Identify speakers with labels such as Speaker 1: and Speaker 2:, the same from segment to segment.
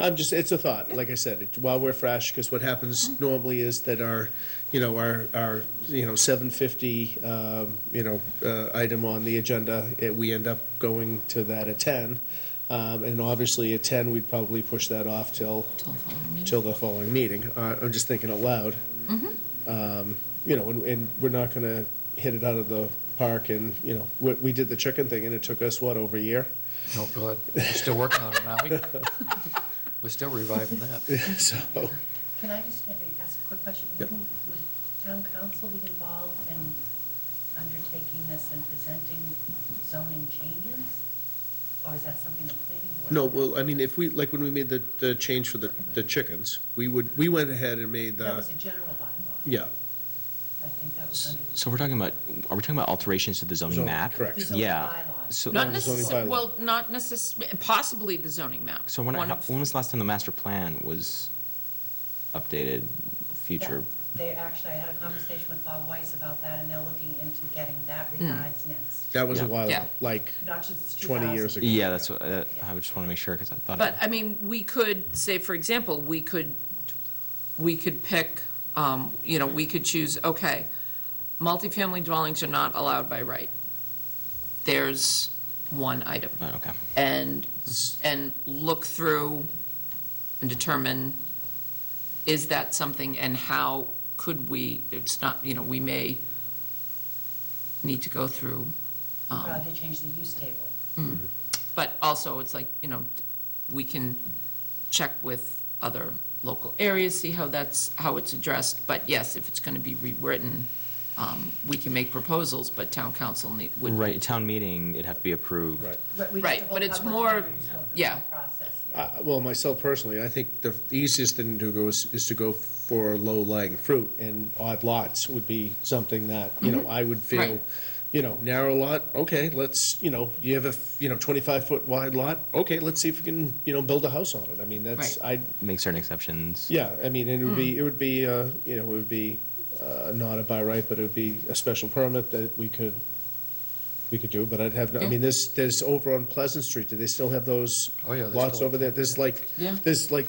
Speaker 1: I'm just, it's a thought, like I said, it- while we're fresh, because what happens normally is that our, you know, our, our, you know, seven fifty, um, you know, uh, item on the agenda, it, we end up going to that at ten. Um, and obviously at ten, we'd probably push that off till,
Speaker 2: Till the following meeting.
Speaker 1: till the following meeting. Uh, I'm just thinking out loud. Um, You know, and, and we're not gonna hit it out of the park and, you know, we, we did the chicken thing and it took us, what, over a year?
Speaker 3: No, good. We're still working on it, aren't we? We're still reviving that.
Speaker 1: So,
Speaker 4: Can I just maybe ask a quick question?
Speaker 1: Yep.
Speaker 4: Wouldn't, would town council be involved in undertaking this and presenting zoning changes? Or is that something the planning board?
Speaker 1: no, well, I mean, if we, like, when we made the, the change for the, the chickens, we would, we went ahead and made
Speaker 4: That
Speaker 1: the,
Speaker 4: was a general bylaw.
Speaker 1: yeah.
Speaker 4: I think that was
Speaker 5: S-
Speaker 4: under.
Speaker 5: So we're talking about, are we talking about alterations to the zoning
Speaker 1: Zoning,
Speaker 5: map?
Speaker 1: correct.
Speaker 4: The zoning
Speaker 5: Yeah.
Speaker 4: bylaw.
Speaker 5: So,
Speaker 2: Not
Speaker 1: the zoning bylaw.
Speaker 2: necessarily, well, not necess, possibly the zoning map.
Speaker 5: so when,
Speaker 2: One
Speaker 5: how-
Speaker 2: of-
Speaker 5: when was the last time the master plan was updated, future?
Speaker 4: That- They, actually, I had a conversation with Bob Weiss about that, and they're looking into getting that
Speaker 2: Hmm.
Speaker 4: revised next.
Speaker 1: That was a
Speaker 5: Yeah.
Speaker 1: while,
Speaker 2: Yeah.
Speaker 1: ago, like,
Speaker 4: Not just
Speaker 1: 20 years
Speaker 4: 2000.
Speaker 1: ago.
Speaker 5: Yeah, that's, what uh, I just want to make sure, because I thought.
Speaker 2: But, I mean, we could, say, for example, we could, we could pick, um, you know, we could choose, okay, multifamily dwellings are not allowed by right. There's one item.
Speaker 5: Oh, Okay.
Speaker 2: and, and look through and determine, is that something, and how could we, it's not, you know, we may need to go through, um,
Speaker 4: Probably Uh, they changed the use table.
Speaker 2: but also, it's like, you know, we can check with other local areas, see how that's, how it's addressed, but yes, if it's going to be rewritten, um, we can make proposals, but town council need, would.
Speaker 5: Right, town meeting, it'd have to be approved.
Speaker 1: Right.
Speaker 4: But we'd have
Speaker 2: Right,
Speaker 4: to
Speaker 2: but
Speaker 4: hold
Speaker 2: it's
Speaker 4: public
Speaker 2: more-
Speaker 4: hearings, go through the
Speaker 2: yeah. Uh,
Speaker 4: Process, yeah.
Speaker 1: I- Well, myself personally, I think the easiest thing to go is, is to go for low-lying fruit, and odd lots would be something that, you know, I would feel,
Speaker 2: Right.
Speaker 1: you know, narrow lot, okay, let's, you know, you have a, you know, 25-foot wide lot, okay, let's see if we can, you know, build a house on it. I mean, that's, I,
Speaker 5: Make certain exceptions.
Speaker 1: yeah, I mean, it would
Speaker 2: Hmm.
Speaker 1: be, it would be, uh, you know, it would be uh, not a by right, but it would be a special permit that we could, we could do, but I'd have, no- I
Speaker 2: Yeah.
Speaker 1: mean, there's, there's over on Pleasant Street, do they still have those
Speaker 3: Oh, yeah, they
Speaker 1: lots
Speaker 3: still-
Speaker 1: over there? There's like,
Speaker 2: Yeah.
Speaker 1: there's like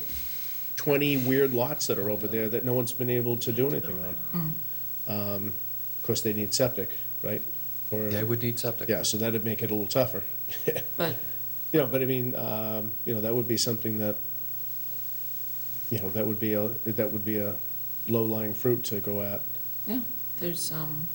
Speaker 1: 20 weird lots that are over there that no one's been able to do anything on. Um,
Speaker 2: Hmm.
Speaker 1: Of course, they need septic, right? Or-
Speaker 3: They would need septic.
Speaker 1: Yeah, so that'd make it a little tougher.
Speaker 2: But,
Speaker 1: You know, but I mean, um, you know, that would be something that, you know, that would be a, that would be a low-lying fruit to go at.
Speaker 2: yeah, there's, um,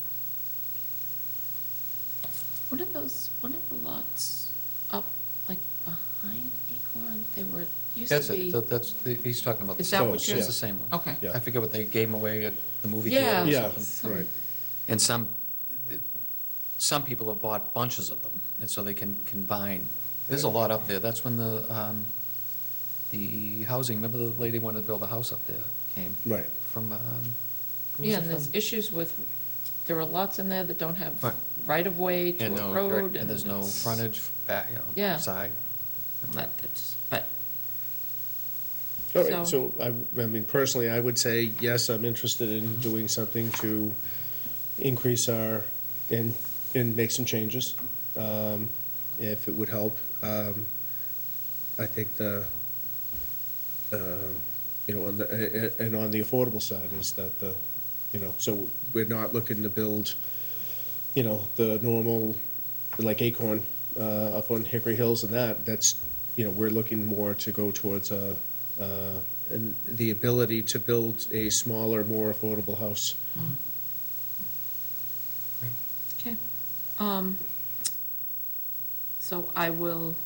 Speaker 2: what are those, what are the lots up, like, behind Acorn? They were, used
Speaker 3: That's
Speaker 2: to be.
Speaker 3: it, That- that's, the- he's talking about. the
Speaker 2: Is that
Speaker 3: same
Speaker 1: what
Speaker 3: one.
Speaker 1: you're-
Speaker 3: It's the same one.
Speaker 2: Okay.
Speaker 1: Yeah.
Speaker 3: I forget what they gave him away at the movie
Speaker 2: Yeah.
Speaker 3: theater or
Speaker 1: Yeah,
Speaker 3: something.
Speaker 2: Some-
Speaker 1: right.
Speaker 3: And some, some people have bought bunches of them, and so they can combine. There's a lot up there. That's when the, um, the housing, remember the lady wanted to build a house up there, came?
Speaker 1: Right.
Speaker 3: From, um, who was
Speaker 2: Yeah,
Speaker 3: it
Speaker 2: and there's
Speaker 3: from?
Speaker 2: issues with, there are lots in there that don't have
Speaker 3: Right.
Speaker 2: right-of-way to
Speaker 3: And
Speaker 2: a
Speaker 3: no-
Speaker 2: road.
Speaker 3: And there's no
Speaker 2: it's-
Speaker 3: frontage, back, you
Speaker 2: Yeah.
Speaker 3: know, side.
Speaker 2: But, it's- but,
Speaker 1: All right, so
Speaker 2: So-
Speaker 1: I, I mean, personally, I would say, yes, I'm interested in doing something to increase our, and, and make some changes, um, if it would help. Um, I think the, um, you know, on the, a- a- and on the affordable side is that the, you know, so we're not looking to build, you know, the normal, like Acorn, uh, up on Hickory Hills and that, that's, you know, we're looking more to go towards a, uh, an- the ability to build a smaller, more affordable house.
Speaker 2: okay. Um, So I will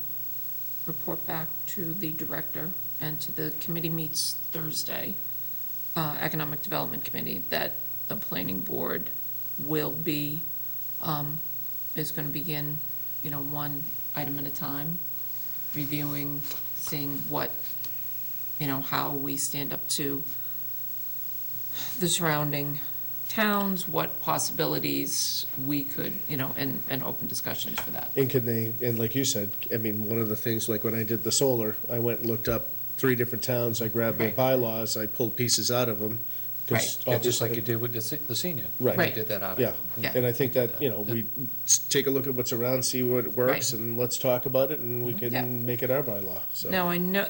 Speaker 2: report back to the director and to the committee meets Thursday, uh, Economic Development Committee, that the planning board will be, um, is going to begin, you know, one item at a time, reviewing, seeing what, you know, how we stand up to the surrounding towns, what possibilities we could, you know, and, and open discussions for that.
Speaker 1: And can they, and like you said, I mean, one of the things, like when I did the solar, I went and looked up three different towns, I grabbed their
Speaker 2: Right.
Speaker 1: bylaws, I pulled pieces out of them. 'cause
Speaker 3: Yeah, just like
Speaker 1: obviously-
Speaker 3: you did with the se- the senior.
Speaker 1: Right.
Speaker 3: We
Speaker 2: Right.
Speaker 3: did that out.
Speaker 1: Yeah,
Speaker 2: Yeah.
Speaker 1: and I think that, you know, we s- take a look at what's around, see what
Speaker 2: Right.
Speaker 1: works, and let's talk about it, and we
Speaker 2: Yeah.
Speaker 1: can make it our bylaw, so.
Speaker 2: Now, I know,